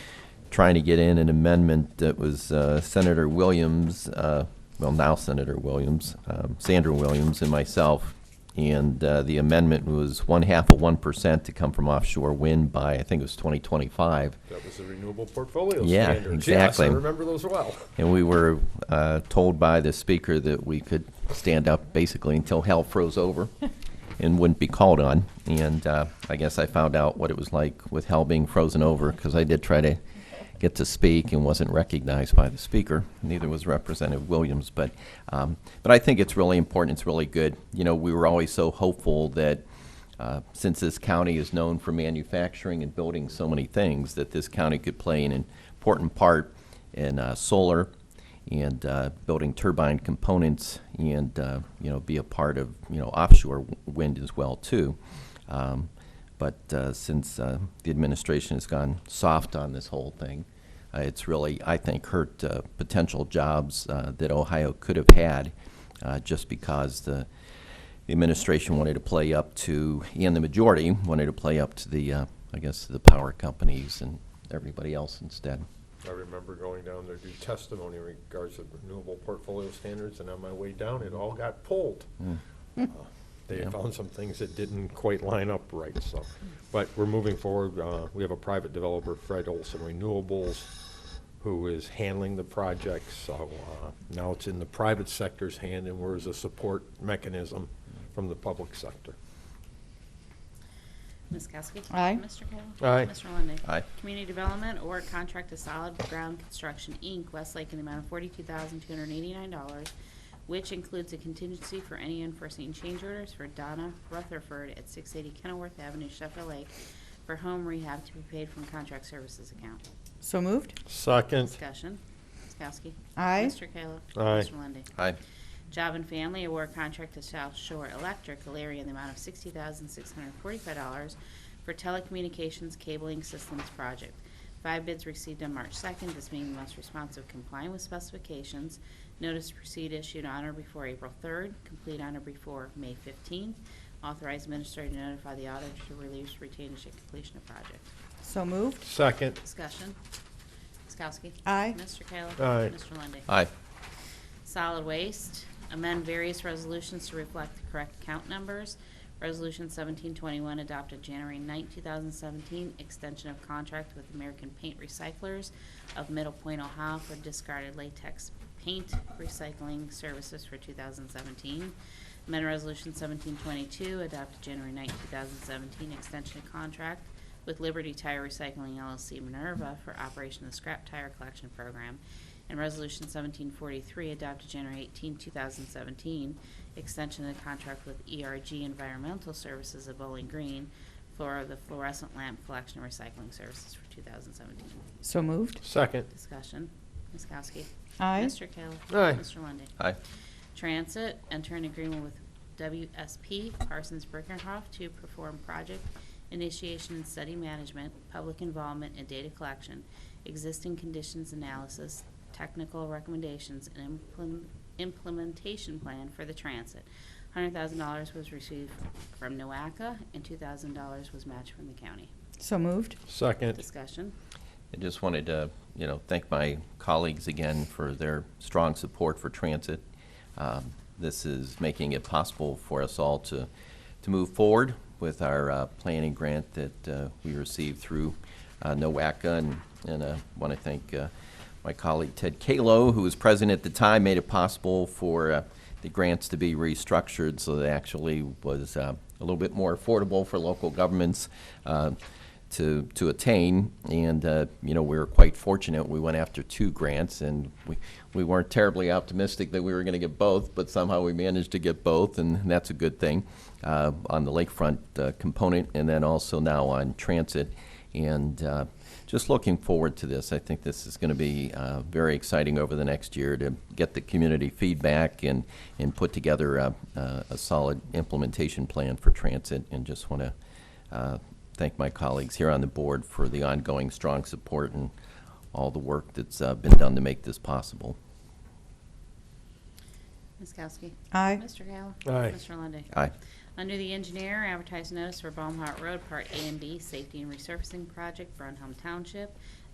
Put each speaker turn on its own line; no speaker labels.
trying to get in an amendment that was uh, Senator Williams, uh, well, now Senator Williams, um, Sandra Williams, and myself. And uh, the amendment was one half of 1% to come from offshore wind by, I think it was 2025.
That was the renewable portfolio
Yeah,
standards.
exactly.
Yes, I remember those well.
And we were uh, told by the speaker that we could stand up basically until hell froze over and wouldn't be called on. And uh, I guess I found out what it was like with hell being frozen over because I did try to get to speak and wasn't recognized by the speaker. Neither was Representative Williams. But, um, but I think it's really important. It's really good. You know, we were always so hopeful that uh, since this county is known for manufacturing and building so many things, that this county could play an important part in uh, solar and uh, building turbine components and, uh, you know, be a part of, you know, offshore w- wind as well, too. Um, But uh, since uh, the administration has gone soft on this whole thing, uh, it's really, I think, hurt uh, potential jobs uh, that Ohio could have had uh, just because the, the administration wanted to play up to, and the majority wanted to play up to the, uh, I guess, the power companies and everybody else instead.
I remember going down there to do testimony in regards to renewable portfolio standards, and on my way down, it all got pulled.
Hmm.
Uh, They
Yeah.
found some things that didn't quite line up right, so. But we're moving forward. Uh, We have a private developer, Fred Olson Renewables, who is handling the project, so uh, now it's in the private sector's hand, and we're as a support mechanism from the public sector.
Ms. Kowski?
Aye.
Mr. Kayla?
Aye.
Mr. Lundey?
Aye.
Community Development Award Contract to Solid Ground Construction, Inc., Westlake, in the amount of forty-two thousand, two hundred and eighty-nine dollars, which includes a contingency for any unforeseen change orders for Donna Rutherford at six eighty Kenilworth Avenue, Sheffield Lake, for home rehab to be paid from contract services account.
So moved.
Second,
Discussion. Ms. Kowski?
Aye.
Mr. Kayla?
Aye.
Mr. Lundey?
Aye.
Job and Family Award Contract to South Shore Electric, Alaria, in the amount of $60,645 for telecommunications cabling systems project. Five bids received on March 2nd, this being the most responsive complying with specifications. Notice to proceed issued on or before April 3rd, complete on or before May 15th. Authorize administrator to notify the auditor to release retained at completion of project.
So moved.
second,
Discussion. Ms. Kowski?
Aye.
Mr. Kayla?
Aye.
Mr. Lundey?
Aye.
Solid Waste, amend various resolutions to reflect the correct count numbers. Resolution 1721 adopted January 9, 2017, extension of contract with American Paint Recyclers of Middle Point, Ohio for discarded latex paint recycling services for 2017. Amend Resolution 1722 adopted January 9, 2017, extension of contract with Liberty Tire Recycling LLC Minerva for operation of the scrap tire collection program, and Resolution 1743, adopted January 18, 2017, extension of the contract with ERG Environmental Services of Bowling Green for the fluorescent lamp collection and recycling services for 2017.
So moved.
second,
Discussion. Ms. Kowski.
Aye.
Mr. Kayla.
Aye.
Mr. Lundey.
Aye.
Transit, enter an agreement with WSP Parsons Brinckerhoff to perform project initiation and study management, public involvement and data collection, existing conditions analysis, technical recommendations, and implement- implementation plan for the transit. $100,000 was received from NOACA, and $2,000 was matched from the county.
So moved.
second,
Discussion.
I just wanted to, you know, thank my colleagues again for their strong support for transit. Um, This is making it possible for us all to, to move forward with our uh, planning grant that uh, we received through uh, NOACA. And, and I want to thank uh, my colleague Ted Kalo, who was president at the time, made it possible for uh, the grants to be restructured so that actually was uh, a little bit more affordable for local governments. uh, to, to attain. And, uh, you know, we were quite fortunate. We went after two grants and we, we weren't terribly optimistic that we were going to get both, but somehow we managed to get both, and that's a good thing uh, on the lakefront uh, component and then also now on transit. And uh, just looking forward to this. I think this is going to be uh, very exciting over the next year to get the community feedback and, and put together a, a a solid implementation plan for transit. And just want to uh, thank my colleagues here on the board for the ongoing strong support and all the work that's uh, been done to make this possible.
Ms. Kowski.
Aye.
Mr. Kayla.
Aye.
Mr. Lundey.
Aye.
Under the engineer, advertise notice for Baumhart Road, Part A and B, Safety and Resurfacing Project, Brunhelm Township.